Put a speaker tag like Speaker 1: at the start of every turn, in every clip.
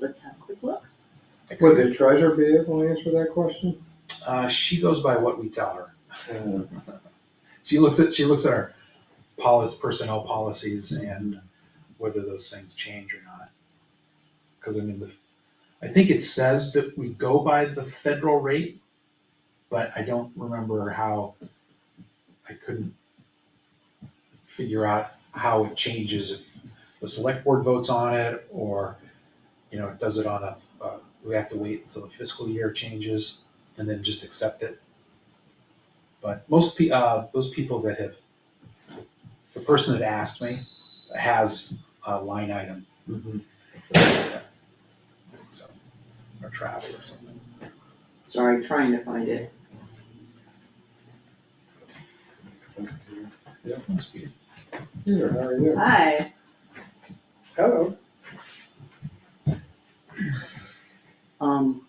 Speaker 1: let's have a quick look.
Speaker 2: Would the treasurer be able to answer that question?
Speaker 3: Uh, she goes by what we tell her. She looks at, she looks at our policy, personnel policies and whether those things change or not. Cause I mean, the, I think it says that we go by the federal rate, but I don't remember how, I couldn't figure out how it changes if the select board votes on it or, you know, it does it on a, uh, we have to wait until the fiscal year changes and then just accept it. But most pe- uh, those people that have, the person that asked me has a line item,
Speaker 1: Mm-hmm.
Speaker 3: so, or travel or something.
Speaker 1: Sorry, trying to find it.
Speaker 3: Must be-
Speaker 2: Peter, how are you?
Speaker 1: Hi,
Speaker 2: Hello.
Speaker 1: um,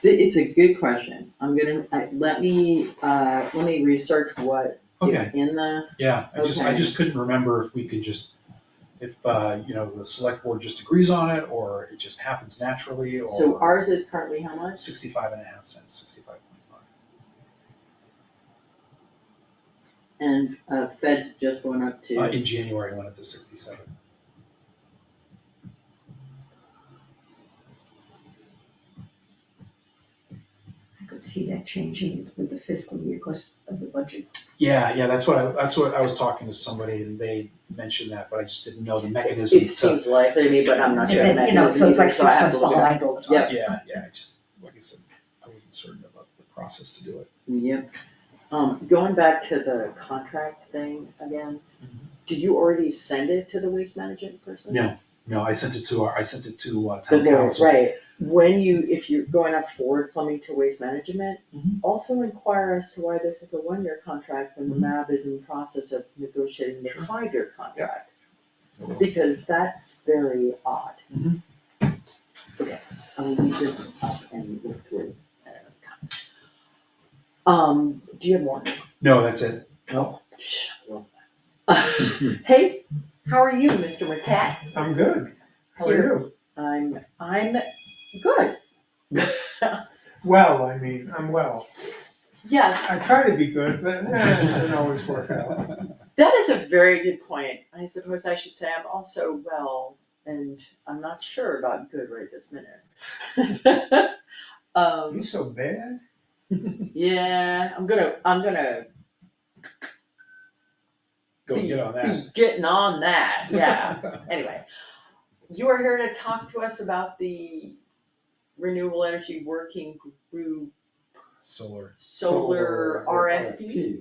Speaker 1: th- it's a good question. I'm gonna, I, let me, uh, let me research what
Speaker 3: Okay,
Speaker 1: is in the,
Speaker 3: yeah, I just, I
Speaker 1: Okay.
Speaker 3: just couldn't remember if we could just, if, uh, you know, the select board just agrees on it, or it just happens naturally, or.
Speaker 1: so ours is currently how much?
Speaker 3: Sixty-five and a half cents, sixty-five point five.
Speaker 1: And, uh, Fed's just went up to.
Speaker 3: Uh, in January, it went up to sixty-seven.
Speaker 4: I could see that changing with the fiscal year because of the budget.
Speaker 3: Yeah, yeah, that's what I, that's what, I was talking to somebody, and they mentioned that, but I just didn't know the mechanism to.
Speaker 1: It seems likely to me, but I'm not
Speaker 4: And
Speaker 1: sure. the
Speaker 4: then, you know, so it's like
Speaker 1: mechanism,
Speaker 4: six
Speaker 1: so I have
Speaker 4: months
Speaker 1: to look
Speaker 4: behind all the time.
Speaker 1: Yeah.
Speaker 3: Yeah, yeah, I just, like I said, I wasn't certain about the process to do it.
Speaker 1: Yep. Um, going back to the contract thing again, did you already send it to the waste management person?
Speaker 3: Mm-hmm. No, No, I sent it to our, I sent it to uh,
Speaker 1: The
Speaker 3: town
Speaker 1: law,
Speaker 3: council.
Speaker 1: right, when you, if you're going up forward plumbing to waste management,
Speaker 2: Mm-hmm.
Speaker 3: Mhm.
Speaker 1: also inquire as to why this is a one-year contract when the
Speaker 3: Mhm.
Speaker 1: MAB
Speaker 2: Mm-hmm.
Speaker 1: is in the process of negotiating the
Speaker 3: Sure.
Speaker 1: five-year contract.
Speaker 3: I will.
Speaker 1: Because that's very odd.
Speaker 2: Mm-hmm.
Speaker 3: Mhm.
Speaker 1: Okay, I'll leave this up and look through. at another time. Um, do you have more?
Speaker 3: No, that's it.
Speaker 1: Shh, I love that. Hey, how are you, Mr. McCat?
Speaker 2: I'm good. How are
Speaker 1: Here.
Speaker 2: you?
Speaker 1: I'm, I'm good.
Speaker 2: Well, I mean, I'm well. I
Speaker 1: Yes,
Speaker 2: try to be good, but eh, it doesn't always work out.
Speaker 1: that is a very good point. I suppose I should say I'm also well, and I'm not sure about good right this minute.
Speaker 2: You
Speaker 1: Um,
Speaker 2: so bad?
Speaker 1: yeah, I'm gonna, I'm gonna
Speaker 3: Go get on that.
Speaker 1: be getting on that, yeah. Anyway, you are here to talk to us about the renewable energy working group
Speaker 3: Solar.
Speaker 1: solar RFP.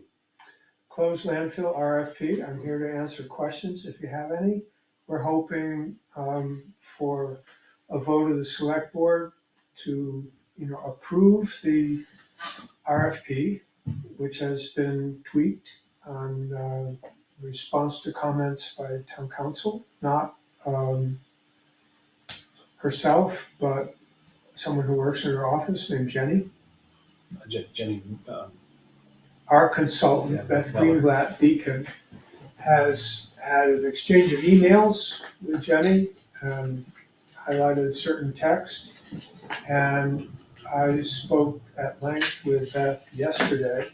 Speaker 2: Closed landfill RFP. I'm here to answer questions if you have any. We're hoping um, for a vote of the select board to, you know, approve the RFP, which has been tweaked on uh, response to comments by town council, not um, herself, but someone who works in her office named Jenny
Speaker 3: Uh, Je- Jenny, um,
Speaker 2: our
Speaker 3: Yeah,
Speaker 2: consultant, Beth
Speaker 3: Beth Miller.
Speaker 2: Greenblatt Deacon, has had an exchange of emails with Jenny, and highlighted certain text. And I spoke at length with Beth yesterday,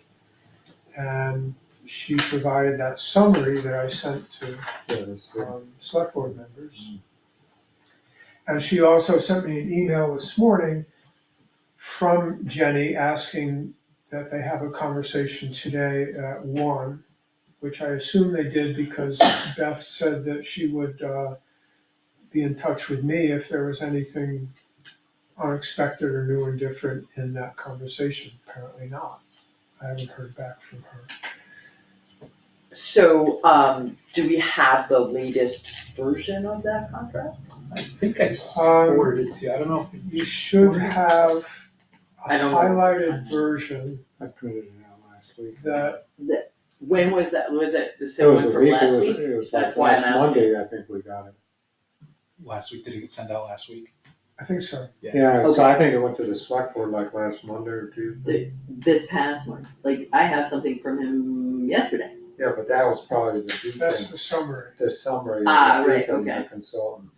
Speaker 2: and she provided that summary that I sent to um, select board members. And she also sent me an email this morning from Jenny asking that they have a conversation today at one, which I assume they did because Beth said that she would uh, be in touch with me if there was anything unexpected or new and different in that conversation. Apparently not. I haven't heard back from her.
Speaker 1: So, um, do we have the latest version of that contract?
Speaker 3: I think I s-
Speaker 2: Um,
Speaker 3: forwarded it to you. I don't know. if-
Speaker 2: You should have a
Speaker 1: I don't know.
Speaker 2: highlighted version
Speaker 5: I printed it out last week.
Speaker 2: that,
Speaker 1: When was that, was it the same one from last week?
Speaker 5: It was
Speaker 1: That's
Speaker 5: like
Speaker 1: why I'm
Speaker 5: last Monday, I think we got it.
Speaker 3: Last week, did it get sent out last week?
Speaker 2: I think so.
Speaker 3: Yeah.
Speaker 5: Yeah, so I think it went to the select board like last Monday or Tuesday.
Speaker 1: This past one, like, I have something from him yesterday.
Speaker 5: Yeah, but that was probably the
Speaker 2: That's
Speaker 5: Deacon,
Speaker 2: the summary.
Speaker 5: the summary. of
Speaker 1: Ah,
Speaker 5: the
Speaker 1: right,
Speaker 5: Deacon, the
Speaker 1: okay.
Speaker 5: Consultant.